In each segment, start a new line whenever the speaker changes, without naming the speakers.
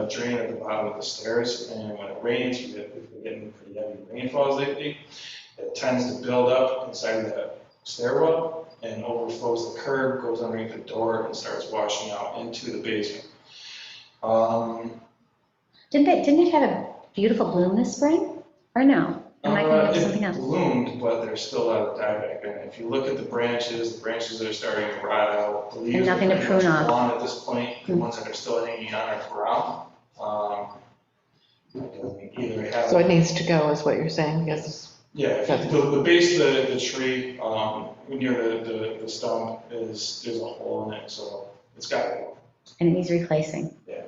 a drain at the bottom of the stairs, and when it rains, we get, we're getting pretty heavy rainfalls lately. It tends to build up inside the stairwell and overflows the curb, goes underneath the door, and starts washing out into the basement. Um,
Didn't they, didn't it have a beautiful bloom this spring? Or no? Am I
uh,
thinking of
it
something else?
bloomed, but there's still a lot of die back, and if you look at the branches, the branches that are starting to rot out, the leaves.
And
are
nothing to
pretty much
prune off.
Gone at this point, the
Hmm.
ones that are still hanging on are brown. Um, it doesn't Either have.
So it needs to go, is what you're saying, yes?
Yeah, if you- the, the base of the, the tree, um, near the, the, the stump is, there's a hole in it, so it's gotta go.
And it needs replacing?
Yeah.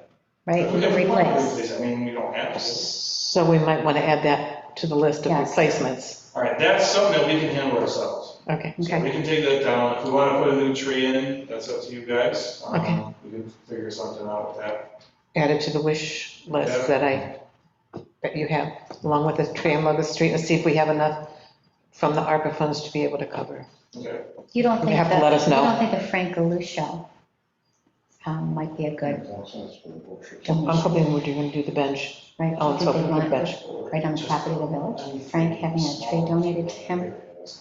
Right,
If we- if we want to
replace.
replace, I mean, we don't have to.
So we might want to add that to the list of
Yes.
replacements.
All right, that's something that we can handle ourselves.
Okay,
So
Okay.
we can take that down. If we wanna put a new tree in, that's up to you guys. Um,
Okay.
We can figure something out with that.
add it to the wish list that I, that you have, along with the tree on Locust Street, and see if we have enough from the ARPA funds to be able to cover.
Okay,
You don't
You
think
have to
that-
let us know.
You don't think the Frank Galusha um, might be a good,
I'm hoping we're going to do the bench.
right?
Oh, it's
Do you
open
think
for
they want
bench.
Right on the property of the village? Frank having a tree donated to him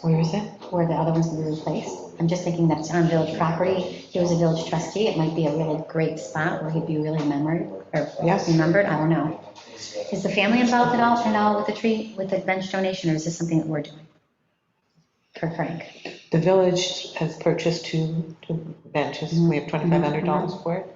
Where is it?
where the other ones will be replaced? I'm just thinking that it's on village property. He was a village trustee. It might be a really great spot where he'd be really remembered, or
Yes.
remembered, I don't know. Is the family involved at all, at all with the tree, with the bench donation, or is this something that we're doing? For Frank?
The village has purchased two, two benches, we have twenty-five hundred dollars for it.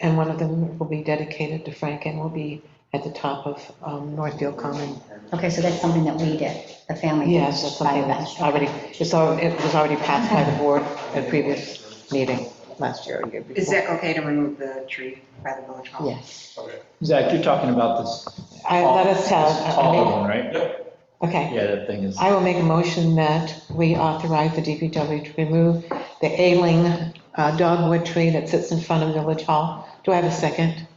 And one of them will be dedicated to Frank and will be at the top of um, Northfield Common.
Okay, so that's something that we did, the family did.
Yes, that's
by
something
the
that's
bench.
already, it's already, it was already passed by the board at previous meeting last year or year before.
Is that okay to remove the tree by the village hall?
Yes.
okay.
Zach, you're talking about this
I, let us tell, uh,
this taller
I
one, right?
Yep,
mean, okay.
Yeah, that thing is,
I will make a motion that we authorize the DPW to remove the ailing uh, dogwood tree that sits in front of Village Hall. Do I have a second?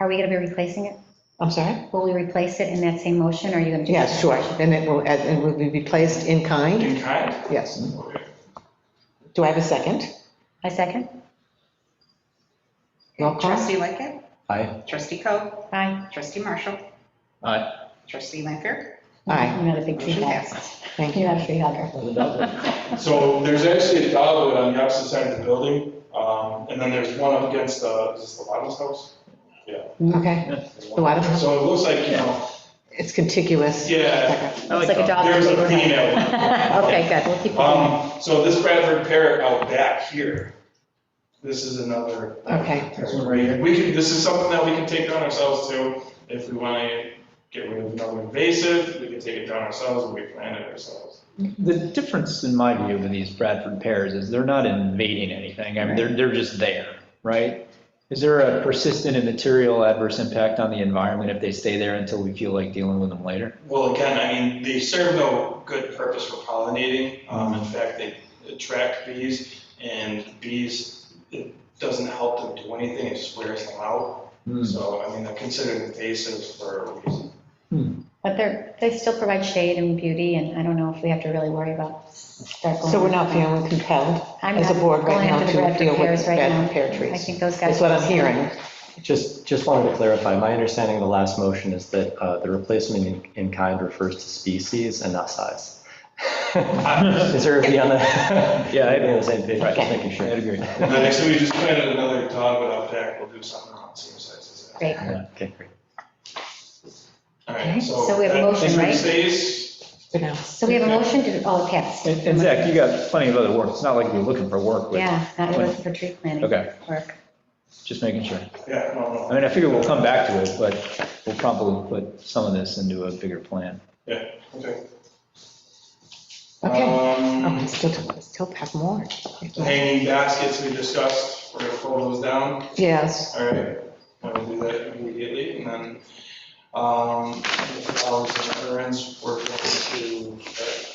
Are we going to be replacing it?
I'm sorry?
Will we replace it in that same motion, or are you going to do?
Yeah,
that?
sure, and it will, and it will be replaced in kind,
in kind,
yes.
okay.
Do I have a second?
I second?
Roll call.
Trustee Lightgev,
aye,
trustee Coe,
Aye.
trustee Marshall,
aye.
trustee Lanfair,
Aye,
I'm not a big tree
motion
guy.
passes.
thank
You're
you.
not a tree hugger.
So there's actually a dogwood on the opposite side of the building, um, and then there's one up against, uh, is this the Waddles house?
Okay, The Waddles house?
So it looks like, you know,
it's contiguous.
Yeah.
It's like a dog.
there's a
neighborhood.
female one.
Okay, good, we'll keep it going.
um, so this Bradford parrot out back here, this is another
Okay,
That's what we're doing. We can, this is something that we can take on ourselves too, if we want to get rid of another invasive, we can take it down ourselves and we plant it ourselves.
The difference in my view with these Bradford pears is they're not invading anything. I mean, they're, they're just there, right? Is there a persistent and material adverse impact on the environment if they stay there until we feel like dealing with them later?
Well, again, I mean, they serve no good purpose for pollinating, um, in fact, they attract bees, and bees, it doesn't help them do anything, it just wears them out,
Hmm.
so, I mean, they're considered invasive for a reason.
But they're, they still provide shade and beauty, and I don't know if we have to really worry about.
so we're not feeling compelled as a board right now to deal with bad pear
I
trees.
think those guys.
That's what I'm hearing.
Just, just wanted to clarify, my understanding of the last motion is that uh, the replacement in- in kind refers to species and not size. Is there everybody on the,
Yeah, I-
everybody on the same page, just
Okay.
making
I
sure?
agree.
And then next time we just planted another dogwood out back, we'll do something around the same size as that.
Great.
Okay, great.
All
Okay,
right, so.
so we have a
that
motion,
thing
right?
Stays,
You know,
So we have a motion to, oh, it passed.
And and Zach, you got plenty of other work. It's not like you're looking for work with,
Yeah, not really for tree planting.
Okay.
Work.
just making sure.
yeah, no, no.
I mean, I figure we'll come back to it, but we'll probably put some of this into a bigger plan.
Okay.
Okay.
Um,
oh, we still, we still have more.
Hanging baskets we discussed, we're gonna pull those down,
Yes,
all right? I'm gonna do that immediately, and then, um, all the veterans, we're going to,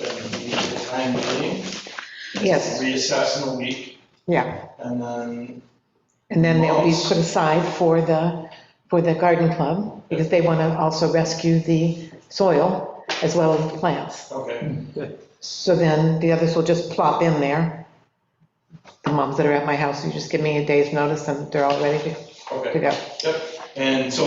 uh, be the time being,
yes,
reassess in a week,
yeah.
and then,
And then they'll be put aside for the, for the garden club, because they want to also rescue the soil as well as the plants.
okay,
So then the others will just plop in there. The moms that are at my house, you just give me a day's notice and they're all ready to- to
okay,
go.
yep. And so